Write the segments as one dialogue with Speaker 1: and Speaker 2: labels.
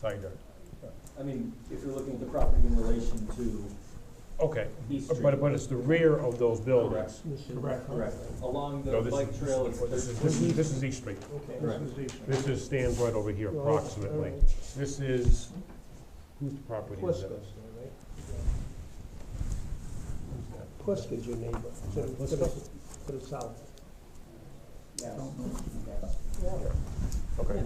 Speaker 1: side yard.
Speaker 2: I mean, if you're looking at the property in relation to
Speaker 1: Okay,
Speaker 2: East
Speaker 1: but,
Speaker 2: Street,
Speaker 1: but it's the rear of those buildings.
Speaker 2: Correct. correct, along
Speaker 1: No,
Speaker 2: the
Speaker 1: this
Speaker 2: bike
Speaker 1: is,
Speaker 2: trail, it's
Speaker 1: this is, this
Speaker 2: thirteen.
Speaker 1: is, this is East Street.
Speaker 3: Okay.
Speaker 2: Correct.
Speaker 1: This is, stands right over here approximately. This is, whose property is that?
Speaker 3: Pliska's, right? Pliska's your neighbor, to the, to the- to the south.
Speaker 1: Okay,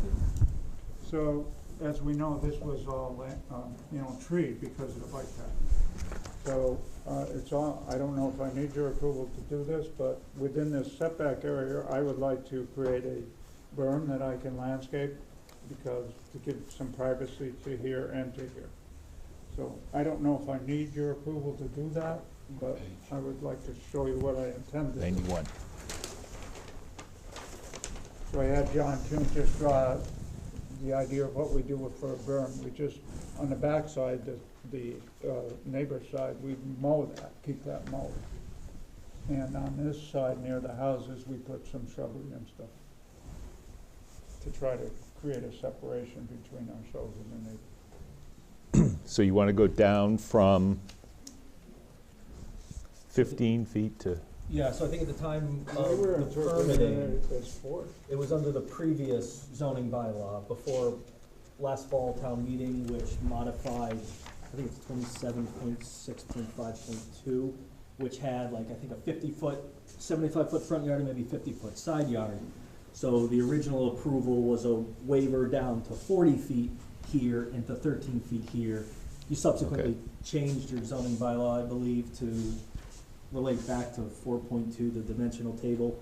Speaker 4: So, as we know, this was all, la- um, you know, tree because of the bike path. So, uh, it's all, I don't know if I need your approval to do this, but within this setback area, I would like to create a berm that I can landscape because, to give some privacy to here and to here. So, I don't know if I need your approval to do that, but I would like to show you what I intend to do.
Speaker 5: Ninety-one.
Speaker 4: So I had John Toon just draw the idea of what we do with- for a berm. We just, on the backside, the, the uh, neighbor's side, we mow that, keep that mowed. And on this side near the houses, we put some shrubbery and stuff to try to create a separation between ourselves and the neighbor.
Speaker 5: So you want to go down from 15 feet to,
Speaker 2: Yeah, so I think at the time
Speaker 4: They
Speaker 2: of
Speaker 4: were
Speaker 2: the
Speaker 4: interpreting
Speaker 2: permitting,
Speaker 4: it as four.
Speaker 2: it was under the previous zoning bylaw before last fall town meeting, which modified, I think it's twenty-seven point six point five point two, which had like, I think a fifty-foot, seventy-five foot front yard and maybe fifty-foot side yard. So the original approval was a waiver down to forty feet here and to thirteen feet here. You subsequently
Speaker 5: Okay.
Speaker 2: changed your zoning bylaw, I believe, to relate back to four point two, the dimensional table,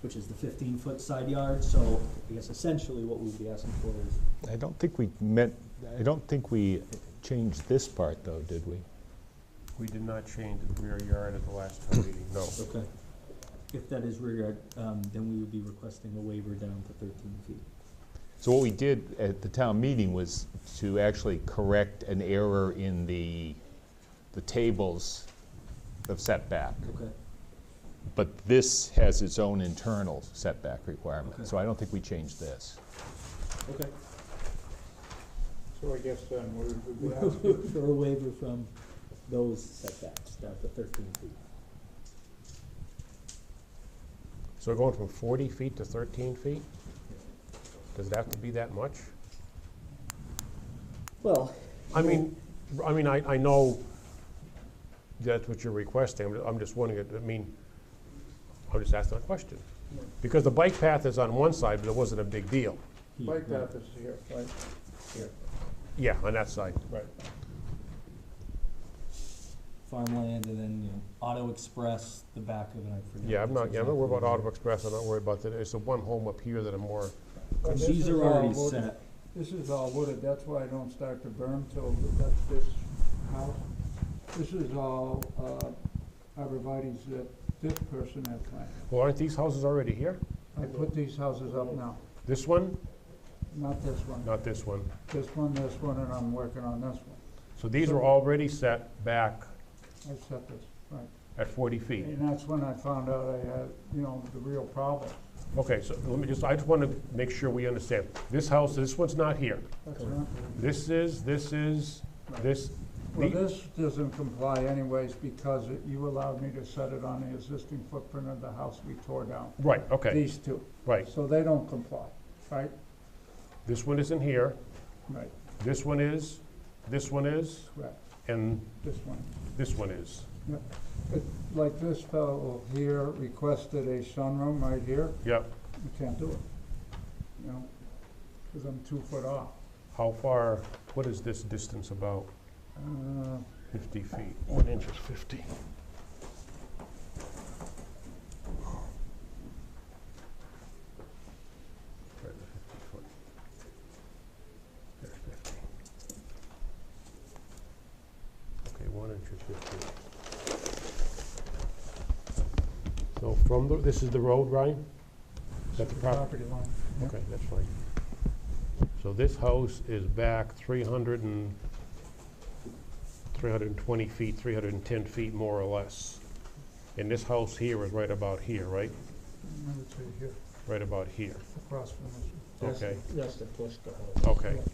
Speaker 2: which is the fifteen-foot side yard, so I guess essentially what we'd be asking for is
Speaker 5: I don't think we meant, I don't think we changed this part, though, did we?
Speaker 1: we did not change the rear yard at the last town meeting, no.
Speaker 2: Okay. If that is rear yard, um, then we would be requesting a waiver down to thirteen feet.
Speaker 5: So what we did at the town meeting was to actually correct an error in the, the tables of setback.
Speaker 2: Okay.
Speaker 5: But this has its own internal setback requirement,
Speaker 2: Okay.
Speaker 5: so I don't think we changed this.
Speaker 2: Okay.
Speaker 4: So I guess then we would be asking
Speaker 2: For a waiver from those setbacks down to thirteen feet.
Speaker 1: So we're going from forty feet to thirteen feet? Does it have to be that much?
Speaker 2: Well,
Speaker 1: I mean, I mean, I, I know that's what you're requesting, I'm- I'm just wondering, I mean, I'm just asking a question. Because the bike path is on one side, but it wasn't a big deal.
Speaker 2: here,
Speaker 4: Bike
Speaker 2: right.
Speaker 4: path is here, right?
Speaker 1: Yeah, on that side.
Speaker 4: Right.
Speaker 2: farmland and then, you know, Auto Express, the back of it, I forget.
Speaker 1: Yeah, I'm not, yeah, I'm not worried about
Speaker 2: exactly
Speaker 1: Auto Express, I'm not worried about that, it's the one home up here that I'm more,
Speaker 2: what
Speaker 4: But
Speaker 2: it
Speaker 4: this
Speaker 2: is. These
Speaker 4: is
Speaker 2: are
Speaker 4: all
Speaker 2: already
Speaker 4: wood.
Speaker 2: set,
Speaker 4: This is all wooded, that's why I don't start to burn till that's this house. This is all uh, arborvitae's that this person had planted.
Speaker 1: well, aren't these houses already here?
Speaker 4: I put these houses up now,
Speaker 1: This one,
Speaker 4: not this one,
Speaker 1: not this one.
Speaker 4: this one, this one, and I'm working on this one.
Speaker 1: So these are already set back
Speaker 4: I set this, right.
Speaker 1: at 40 feet.
Speaker 4: And that's when I found out I had, you know, the real problem.
Speaker 1: Okay, so let me just, I just want to make sure we understand. This house, this one's not here.
Speaker 4: That's not,
Speaker 1: This is, this is, this,
Speaker 4: well,
Speaker 1: the-
Speaker 4: this doesn't comply anyways because it- you allowed me to set it on the existing footprint of the house we tore down,
Speaker 1: right, okay,
Speaker 4: these two.
Speaker 1: right.
Speaker 4: So they don't comply, right?
Speaker 1: This one isn't here,
Speaker 4: Right,
Speaker 1: this one is, this one is,
Speaker 4: correct,
Speaker 1: and
Speaker 4: this one.
Speaker 1: this one is.
Speaker 4: But Like this fellow here requested a sunroom right here,
Speaker 1: Yep.
Speaker 4: we can't do it. You know, because I'm two foot off.
Speaker 1: How far, what is this distance about?
Speaker 4: Uh,
Speaker 1: 50 feet. One inch is 50. Okay, one inch is 50. So from the, this is the road, Ryan? Is that the property?
Speaker 4: line.
Speaker 1: Okay, that's fine. So this house is back 300 and, 320 feet, 310 feet more or less. And this house here is right about here, right?
Speaker 4: I'm gonna say here,
Speaker 1: Right about here.
Speaker 4: across from this.
Speaker 1: Okay,
Speaker 3: That's the Pliska house.
Speaker 1: okay.